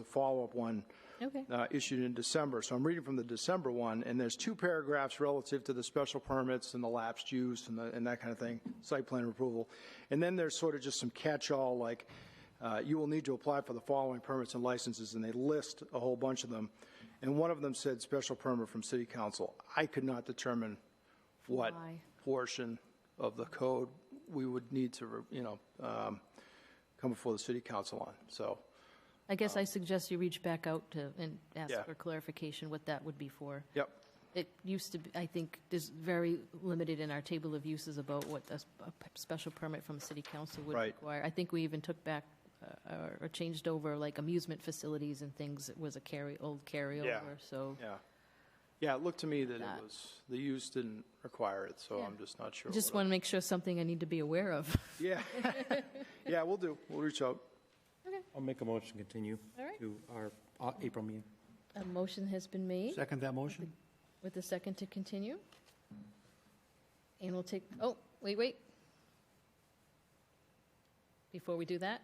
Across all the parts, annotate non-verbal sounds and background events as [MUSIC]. the follow-up one Okay. uh, issued in December. So I'm reading from the December one, and there's two paragraphs relative to the special permits and the lapsed use and, the, and that kind of thing, site plan approval. And then there's sort of just some catch-all like, uh, you will need to apply for the following permits and licenses, and they list a whole bunch of them. And one of them said special permit from city council. I could not determine what Why? portion of the code we would need to, you know, um, come before the city council on. So, I guess I suggest you reach back out to, and ask Um, Yeah. for clarification what that would be for. yep, It used to, be I think, is very limited in our table of uses about what a s- a p- special permit from city council would Right. require. I think we even took back uh, or- or changed over like amusement facilities and things. It was a carry, old carryover, so. yeah. Yeah, it looked to me that it That. was, the use didn't require it, so Yeah. I'm just not sure. Just what want to make sure something I need to be aware of. I- Yeah, [LAUGHS] yeah, we'll do, we'll reach out. I'll make a motion to continue All right. to our uh, April meeting. A motion has been made Second that motion? with a second to continue. And we'll take, oh, wait, wait. Before we do [LAUGHS] that,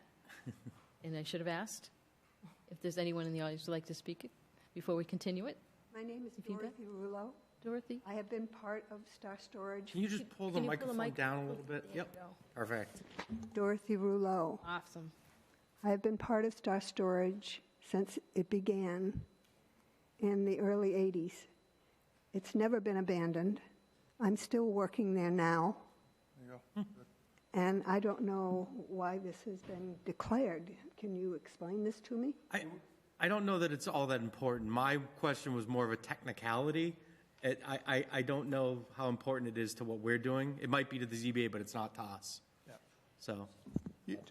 and I should have asked, if there's anyone in the audience who'd like to speak before we continue it. My name is If you Dorothy Rulo. Dorothy? I have been part of Star Storage. Can you just pull the Can you microphone mic- down a little bit? There you Yep, go. perfect. Dorothy Rulo. Awesome. I have been part of Star Storage since it began in the early 80s. It's never been abandoned. I'm still working there now. Hmm. And I don't know why this has been declared. Can you explain this to me? I, I don't know that it's all that important. My question was more of a technicality. It, I, I, I don't know how important it is to what we're doing. It might be to the ZBA, but it's not to us. So,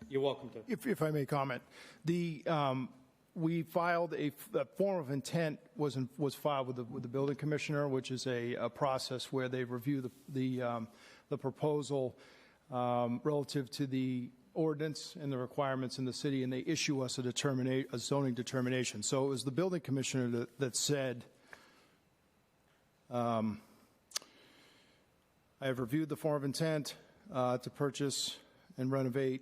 you're welcome to. If, if I may comment, the, um, we filed a, the form of intent was, in- was filed with the, with the building commissioner, which is a, a process where they review the, the, um, the proposal, um, relative to the ordinance and the requirements in the city, and they issue us a determina, a zoning determination. So it was the building commissioner that, that said, um, I have reviewed the form of intent uh, to purchase and renovate.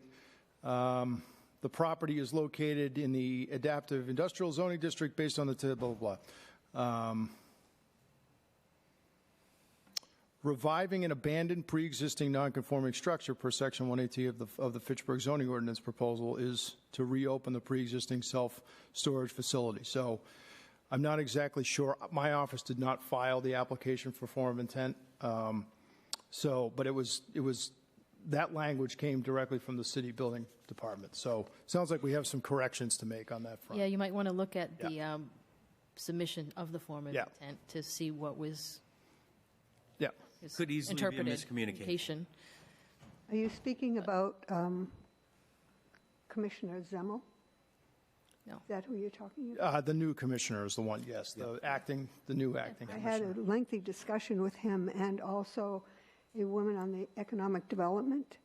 Um, The property is located in the adaptive industrial zoning district based on the, t- blah, blah, blah. Um, Reviving an abandoned pre-existing non-conforming structure per section 180 of the, of the Fitchburg zoning ordinance proposal is to reopen the pre-existing self-storage facility. So I'm not exactly sure. My office did not file the application for form of intent. Um, so, but it was, it was, that language came directly from the city building department. So sounds like we have some corrections to make on that Yeah, front. you might want to look at Yeah. the um, submission of the form of Yeah. intent to see what was Yeah. is Could easily be a interpreted. miscommunication. Communication. Are you Uh, speaking about um, Commissioner Zemmel? No. Is that who you're talking about? Uh, the new commissioner is the one, yes, the acting, the new acting I had commissioner. a lengthy discussion with him and also a woman on the economic development.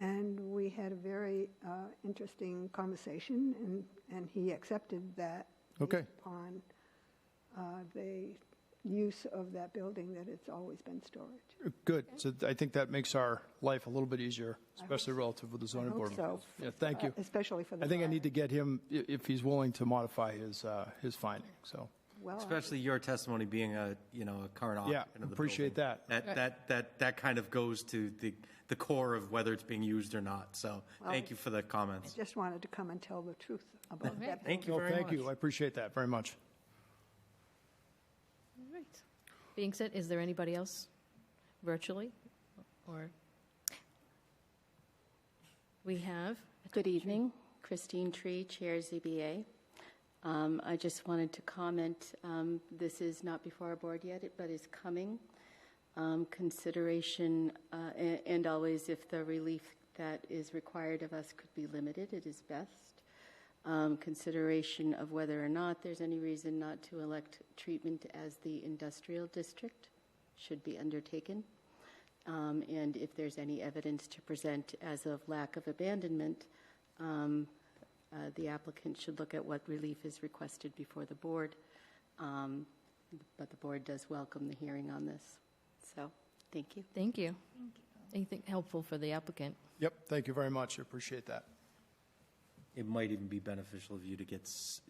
And we had a very uh, interesting conversation, and, and he accepted that. Okay. based Upon uh, the use of that building, that it's always been storage. Good. So I think that makes our life a little bit easier, especially relative with the I zoning hope board. so. Yeah, thank you. Uh, Especially for the. I think I fire. need to get him, i- if he's willing to modify his, uh, his finding, so. Well, I- Especially your testimony being a, you know, a current Yeah, occupant of the appreciate building. that. That, that, that, that kind of goes to the, the core of whether it's being used or not. So, thank you for the comments. just wanted to come and tell the truth about that. Thank you No, very much. thank you. I appreciate that very much. All right. Being said, is there anybody else virtually or? We have, Good evening. Christine Tree, Chair ZBA. Um, I just wanted to comment, um, this is not before our board yet, but is coming. Um, Consideration, uh, a- and always if the relief that is required of us could be limited, it is best. Um, Consideration of whether or not there's any reason not to elect treatment as the industrial district should be undertaken um, and if there's any evidence to present as of lack of abandonment, um, uh, the applicant should look at what relief is requested before the board. Um, But the board does welcome the hearing on this. So, thank you. thank you. Anything helpful for the applicant? Yep, thank you very much. I appreciate that. It might even be beneficial of you to get s-